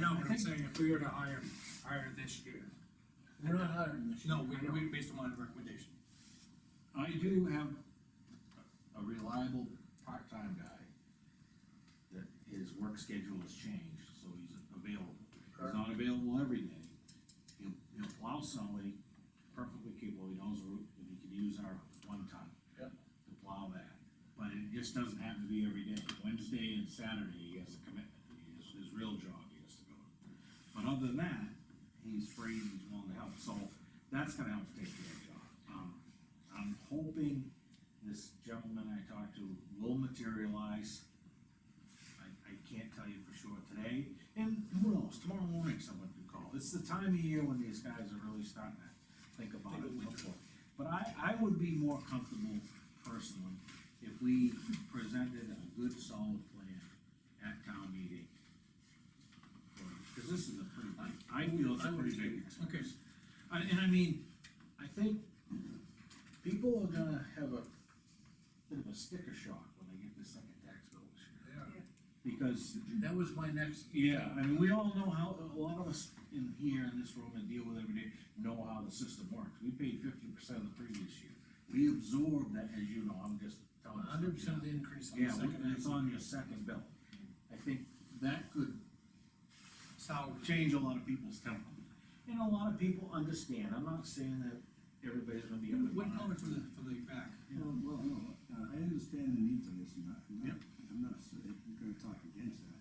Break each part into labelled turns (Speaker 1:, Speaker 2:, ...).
Speaker 1: No, but I'm saying if we were to hire, hire this year.
Speaker 2: We're not hiring this.
Speaker 3: No, we, we, based on a recommendation.
Speaker 4: I do have a reliable part-time guy that his work schedule has changed, so he's available. He's not available every day. He'll, he'll plow somebody perfectly capable, he knows the route, and he can use our one ton.
Speaker 2: Yep.
Speaker 4: To plow that, but it just doesn't have to be every day. Wednesday and Saturday, he has a commitment, he has his real job he has to go to. But other than that, he's free and he's willing to help, so that's gonna help take care of the job. Um, I'm hoping this gentleman I talked to will materialize. I, I can't tell you for sure today, and who knows, tomorrow morning someone could call. It's the time of year when these guys are really starting to think about it. But I, I would be more comfortable personally if we presented a good solid plan at town meeting. Cause this is a pretty, I, I feel it's a pretty big expense.
Speaker 3: Okay.
Speaker 4: I- And I mean, I think people are gonna have a bit of a sticker shock when they get the second tax bill this year.
Speaker 1: Yeah.
Speaker 4: Because,
Speaker 2: That was my next,
Speaker 4: yeah, I mean, we all know how, a lot of us in here in this room and deal with every day know how the system works. We paid fifty percent the previous year. We absorb that, as you know, I'm just telling you.
Speaker 2: hundred percent increase on the
Speaker 4: Yeah,
Speaker 2: second.
Speaker 4: it's
Speaker 2: half.
Speaker 4: on your second bill. I think that could
Speaker 3: Salary.
Speaker 4: change a lot of people's temper. And a lot of people understand, I'm not saying that everybody's gonna be. able to
Speaker 3: One
Speaker 4: buy it.
Speaker 3: comment from the, from the back.
Speaker 4: Yeah.
Speaker 5: Well, well, no, uh, I understand the need for this, and I- I'm not,
Speaker 4: Yep.
Speaker 5: I'm not, s- I'm gonna talk against that.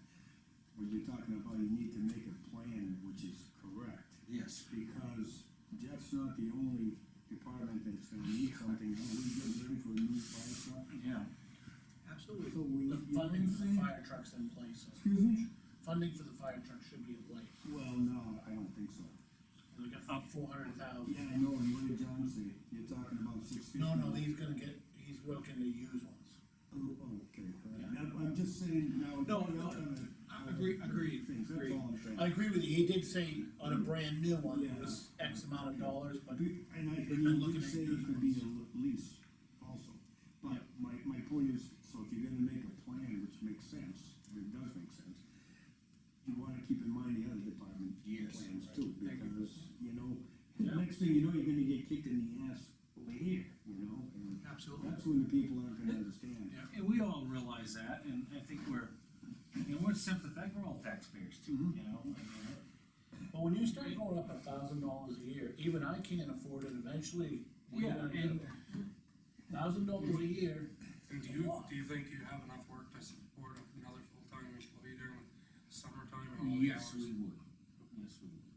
Speaker 5: When you're talking about you need to make a plan which is correct,
Speaker 4: Yes.
Speaker 5: because Jeff's not the only department that's gonna need something, and we get ready for a new fire truck.
Speaker 4: Yeah,
Speaker 3: Absolutely.
Speaker 5: So we.
Speaker 2: The
Speaker 5: you-
Speaker 2: funding for the fire trucks in place,
Speaker 5: Excuse me?
Speaker 2: funding for the fire truck should be in place,
Speaker 5: Well, no, I don't think so.
Speaker 2: And we got four hundred thousand.
Speaker 5: Yeah, I know, and what did John say? You're talking about six fifty.
Speaker 2: No, no, he's gonna get, he's working to use ones.
Speaker 5: Oh, oh, okay, I'm, I'm just saying now.
Speaker 3: No,
Speaker 5: we're
Speaker 3: no,
Speaker 5: not gonna-
Speaker 3: I agree- agreed,
Speaker 5: Things, That's
Speaker 3: agreed.
Speaker 5: all I'm saying.
Speaker 2: I agree with you, he did say on a brand new one, it
Speaker 5: Yeah.
Speaker 2: was X amount of dollars, but
Speaker 5: Be- And I,
Speaker 2: We've
Speaker 5: and
Speaker 2: been
Speaker 5: you
Speaker 2: looking
Speaker 5: did
Speaker 2: at
Speaker 5: say
Speaker 2: those
Speaker 5: it could be a l- lease also, but
Speaker 2: Yeah.
Speaker 5: my, my point is, so if you're gonna make a plan, which makes sense, it does make sense. You wanna keep in mind the other department
Speaker 4: Yes.
Speaker 5: plans too,
Speaker 3: Thank you.
Speaker 5: because, you know,
Speaker 4: Yeah.
Speaker 5: the next thing you know, you're gonna get kicked in the ass over here, you know, and
Speaker 3: Absolutely.
Speaker 5: that's when the people aren't gonna understand.
Speaker 3: Yeah.
Speaker 4: and we all realize that, and I think we're, and we're sympathetic, we're all taxpayers too, you know? I mean,
Speaker 2: But when you start going up a thousand dollars a year, even I can't afford it eventually.
Speaker 4: Yeah, and-
Speaker 2: Thousand dollars a year,
Speaker 1: And do you, do you think you have enough work to support another full-time employee during summertime and all the
Speaker 4: Yes,
Speaker 1: hours?
Speaker 4: we would, yes, we would.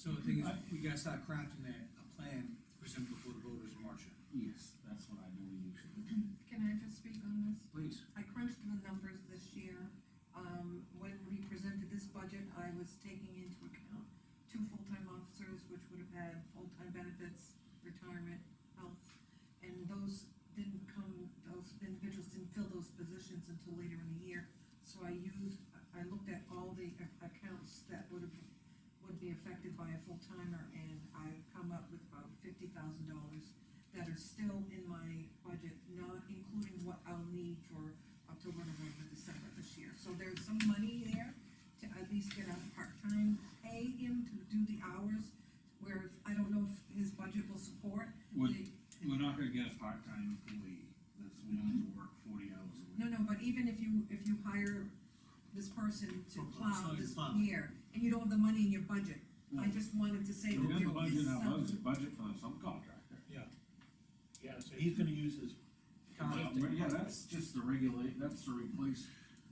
Speaker 3: So the thing is, we gotta start crafting a, a plan for some before the voters in March.
Speaker 4: Yes, that's what I believe you should do.
Speaker 6: Can I just speak on this?
Speaker 3: Please.
Speaker 6: I crunched the numbers this year. Um, when we presented this budget, I was taking into account two full-time officers, which would have had full-time benefits, retirement, health. And those didn't come, those individuals didn't fill those positions until later in the year. So I used, I looked at all the ac- accounts that would have, would be affected by a full-timer, and I've come up with about fifty thousand dollars that are still in my budget, not including what I'll need for October, November, December this year. So there's some money there to at least get a part-time pay him to do the hours, where I don't know if his budget will support.
Speaker 4: Would-
Speaker 6: the-
Speaker 4: We're not gonna get a part-time employee that's willing to work forty hours a week.
Speaker 6: No, no, but even if you, if you hire this person to
Speaker 3: Oh, it's
Speaker 6: plow
Speaker 3: not
Speaker 6: this
Speaker 3: plowing.
Speaker 6: year, and you don't have the money in your budget, I
Speaker 4: No.
Speaker 6: just wanted to say
Speaker 4: We
Speaker 6: that
Speaker 4: got the
Speaker 6: there
Speaker 4: budget,
Speaker 6: is
Speaker 4: now,
Speaker 6: some.
Speaker 4: budget, budget for some contractor.
Speaker 2: yeah, so he's gonna use his,
Speaker 4: Well, Yeah, that's just the regulate, that's to replace,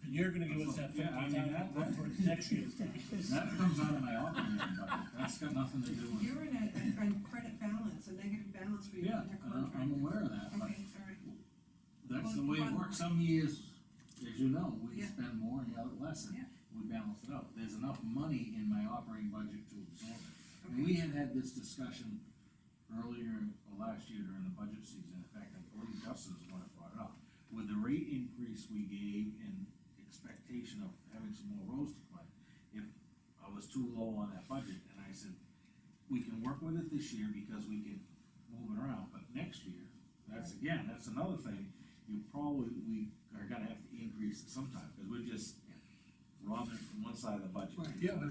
Speaker 2: and you're gonna give us that fifty
Speaker 4: Yeah, I mean, that-
Speaker 2: thousand for next year's taxes.
Speaker 4: that comes out of my operating budget, that's got nothing to do with.
Speaker 6: You're in a, a credit balance, a negative balance for your
Speaker 4: Yeah,
Speaker 6: under
Speaker 4: I-
Speaker 6: contract.
Speaker 4: I'm aware of that,
Speaker 6: Okay, all
Speaker 4: but
Speaker 6: right.
Speaker 4: that's the way it works, some years, as you know, we
Speaker 6: Yeah.
Speaker 4: spend more and the other less, and
Speaker 6: Yeah.
Speaker 4: we balance it out, there's enough money in my operating budget to absorb it. And
Speaker 6: Okay.
Speaker 4: we had had this discussion earlier, or last year during the budget season, in fact, I believe Justin was the one that brought it up. With the rate increase we gave in expectation of having some more roads to climb, if I was too low on that budget, and I said, we can work with it this year because we can move it around, but next year, that's again, that's another thing, you probably, we are gonna have to increase it sometime, because we're just robbing from one side of the budget.
Speaker 3: Right.
Speaker 2: Yeah, but